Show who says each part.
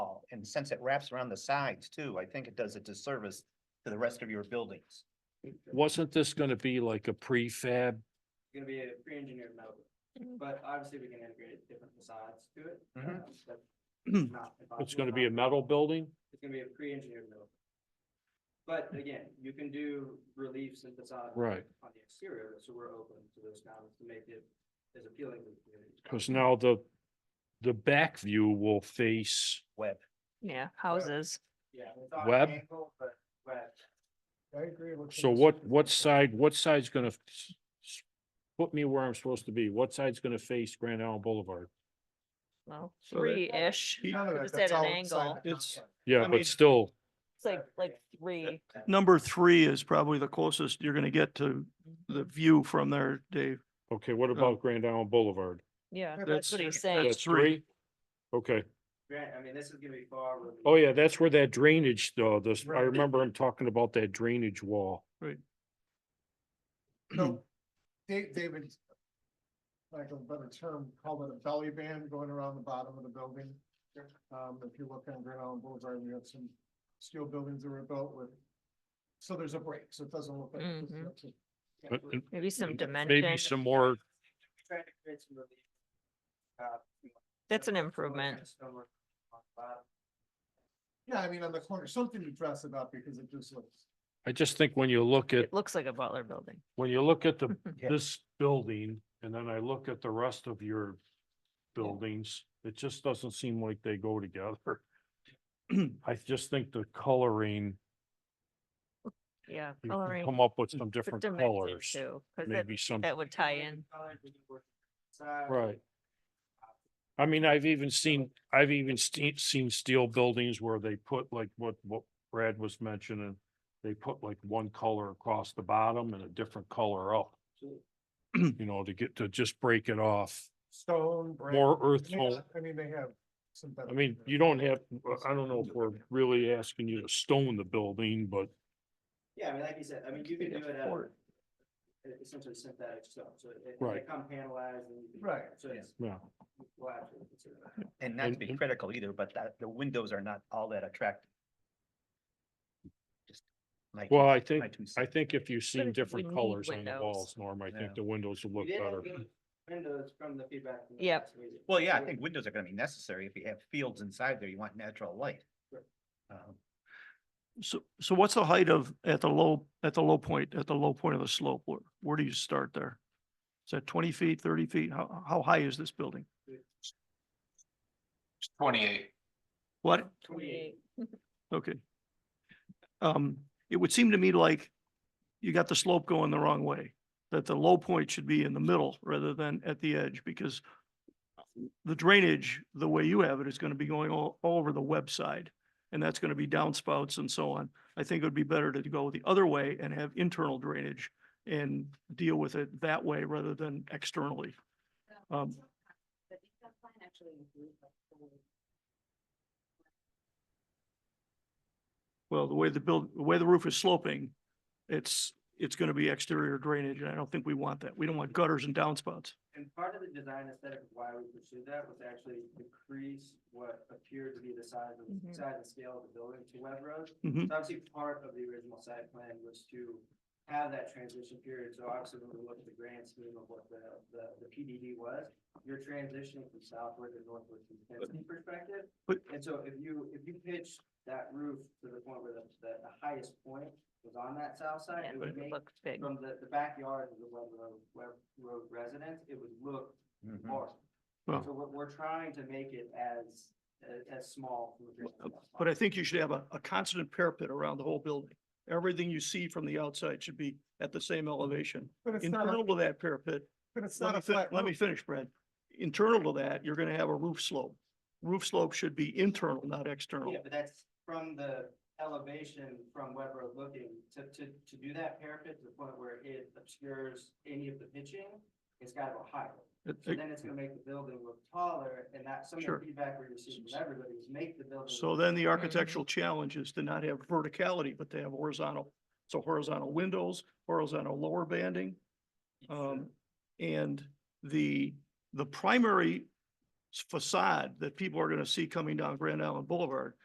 Speaker 1: and since it wraps around the sides too, I think it does a disservice to the rest of your buildings.
Speaker 2: Wasn't this gonna be like a prefab?
Speaker 3: gonna be a pre-engineered metal, but obviously we can integrate different facades to it.
Speaker 4: Mm-hmm.
Speaker 1: Mhm.
Speaker 3: um, that's not
Speaker 2: It's
Speaker 3: impossible,
Speaker 2: gonna be a
Speaker 3: not-
Speaker 2: metal building?
Speaker 3: It's gonna be a pre-engineered metal. But again, you can do reliefs and facades.
Speaker 2: Right.
Speaker 3: On the exterior, so we're open to those comments to make it as appealing to the community.
Speaker 2: Cause now the, the back view will face,
Speaker 1: Web,
Speaker 5: Yeah, houses.
Speaker 3: Yeah. it's on an
Speaker 2: Web?
Speaker 3: angle, But, but
Speaker 4: I agree with.
Speaker 2: so what, what side, what side's gonna s- s- put me where I'm supposed to be? What side's gonna face Grand Island Boulevard?
Speaker 5: Well,
Speaker 6: So that-
Speaker 5: three-ish. It's
Speaker 4: None of that,
Speaker 5: Just
Speaker 4: that's
Speaker 5: at an
Speaker 4: all inside
Speaker 5: angle.
Speaker 4: the
Speaker 6: It's-
Speaker 4: complex.
Speaker 2: Yeah,
Speaker 6: I mean-
Speaker 2: but still,
Speaker 5: like, like three.
Speaker 6: Number three is probably the closest you're gonna get to the view from there, Dave.
Speaker 2: okay, what about Grand Island Boulevard?
Speaker 5: Yeah,
Speaker 4: Yeah,
Speaker 5: that's
Speaker 6: that's-
Speaker 5: what he's saying.
Speaker 2: That's three? Okay,
Speaker 3: grant, I mean, this is gonna be far. removed.
Speaker 2: oh yeah, that's where that drainage though, this, I
Speaker 4: Right.
Speaker 2: remember him talking about that drainage wall.
Speaker 4: So, Da- David, like a better term, call it a belly band going around the bottom of the building. Um, if you look on Grand Island Boulevard, we have some steel buildings that were built with, so there's a break, so it doesn't look like. it's
Speaker 5: Mhm.
Speaker 4: just a-
Speaker 3: Yeah,
Speaker 2: But-
Speaker 3: we're-
Speaker 2: and
Speaker 5: Maybe some
Speaker 2: Maybe
Speaker 5: dimension.
Speaker 2: some more,
Speaker 3: we're Trying to create some relief. uh,
Speaker 5: That's an
Speaker 3: some
Speaker 5: improvement.
Speaker 3: kind of stonework on the bottom.
Speaker 4: Yeah, I mean, on the corner, something to dress it up because it just looks.
Speaker 2: I just think when you look at
Speaker 5: It looks like a Butler building.
Speaker 2: when you look at the,
Speaker 1: Yeah.
Speaker 2: this building, and then I look at the rest of your buildings, it just doesn't seem like they go together. I just think the coloring,
Speaker 5: Yeah.
Speaker 2: you can
Speaker 5: coloring
Speaker 2: come up with some
Speaker 5: with
Speaker 2: different
Speaker 5: dimension
Speaker 2: colors,
Speaker 5: too, 'cause that-
Speaker 2: maybe some,
Speaker 5: That would tie in.
Speaker 3: Colors, we can work inside.
Speaker 2: right. I mean, I've even seen, I've even seen, seen steel buildings where they put like what, what Brad was mentioning, they put like one color across the bottom and a different color up,
Speaker 3: So-
Speaker 2: you know, to get, to just break it off,
Speaker 4: Stone. brick.
Speaker 2: more earth
Speaker 4: They
Speaker 2: tone.
Speaker 4: got- I mean, they have some. better
Speaker 2: I mean, you don't have, I don't know if we're really asking you to stone the building, but
Speaker 3: Yeah, I mean, like you said, I mean, you can do it out of e- essentially synthetic stuff, so it- it, they
Speaker 2: Right.
Speaker 3: come panelized and. you can-
Speaker 4: Right,
Speaker 3: So it's.
Speaker 2: yeah,
Speaker 3: we'll actually consider that.
Speaker 1: and not to
Speaker 2: And-
Speaker 1: be
Speaker 2: and-
Speaker 1: critical either, but that, the windows are not all that attractive. Just my-
Speaker 2: well, I
Speaker 1: my
Speaker 2: think,
Speaker 1: two
Speaker 2: I
Speaker 1: cents.
Speaker 2: think if you've
Speaker 5: if
Speaker 2: seen
Speaker 5: we
Speaker 2: different
Speaker 5: need
Speaker 2: colors on the
Speaker 5: windows-
Speaker 2: walls, Norm, I
Speaker 1: Yeah.
Speaker 2: think the windows will
Speaker 3: We
Speaker 2: look
Speaker 3: did
Speaker 2: better.
Speaker 3: include Windows from the feedback. from the
Speaker 5: Yep.
Speaker 3: last meeting.
Speaker 1: Well, yeah, I
Speaker 3: So
Speaker 1: think windows are gonna be necessary. If you have fields inside there, you want natural light.
Speaker 3: Right.
Speaker 1: Um,
Speaker 6: So, so what's the height of, at the low, at the low point, at the low point of the slope? Where, where do you start there? Is that twenty feet, thirty feet? How, how high is this building?
Speaker 7: Twenty-eight.
Speaker 6: What?
Speaker 3: Twenty-eight.
Speaker 6: Okay. Um, it would seem to me like you got the slope going the wrong way, that the low point should be in the middle rather than at the edge because the drainage, the way you have it, is going to be going all, all over the website. And that's going to be downspouts and so on. I think it would be better to go the other way and have internal drainage and deal with it that way rather than externally. Um, Well, the way the build, the way the roof is sloping, it's, it's gonna be exterior drainage, and I don't think we want that. We don't want gutters and downspouts.
Speaker 3: And part of the design aesthetic of why we pursued that was to actually decrease what appeared to be the size of,
Speaker 5: Mhm.
Speaker 3: size and scale of the building to Web Road.
Speaker 6: Mhm.
Speaker 3: So Obviously, part of the original site plan was to have that transition period, so obviously when we look at the grand scheme of what the, the, the PDD was, you're transitioning from southward to northward from a density perspective.
Speaker 6: But-
Speaker 3: And so if you, if you pitch that roof to the point where the, the the highest point was on that south side,
Speaker 5: Yeah,
Speaker 3: it
Speaker 5: it
Speaker 3: would make,
Speaker 5: looks big.
Speaker 3: from the, the backyard of the Web Road, Web Road residents, it would look
Speaker 1: mhm.
Speaker 3: large.
Speaker 6: Hmm. Well-
Speaker 3: So we're, we're trying to make it as, as, as small. from a distance as
Speaker 6: But
Speaker 3: possible.
Speaker 6: I think you should have a, a constant parapet around the whole building. Everything you see from the outside should be at the same elevation.
Speaker 4: But it's not, a-
Speaker 6: Internal to that parapet,
Speaker 4: but it's
Speaker 6: let
Speaker 4: not
Speaker 6: me,
Speaker 4: a
Speaker 6: fin-
Speaker 4: flat
Speaker 6: let me
Speaker 4: roof.
Speaker 6: finish, Brad. Internal to that, you're gonna have a roof slope. Roof slope should be internal, not external.
Speaker 3: Yeah, but that's from the elevation from Web Road looking, to, to, to do that parapet to the point where it obscures any of the pitching, it's gotta go higher.
Speaker 6: It-
Speaker 3: So
Speaker 6: it-
Speaker 3: then it's gonna make the building look taller, and that, some of
Speaker 6: Sure.
Speaker 3: the feedback we received from everybody is make the building.
Speaker 6: So
Speaker 3: look
Speaker 6: then the architectural challenge is to not have verticality, but to have horizontal. So horizontal windows, horizontal lower banding. Um, and the, the primary s- facade that people are gonna see coming down Grand Island Boulevard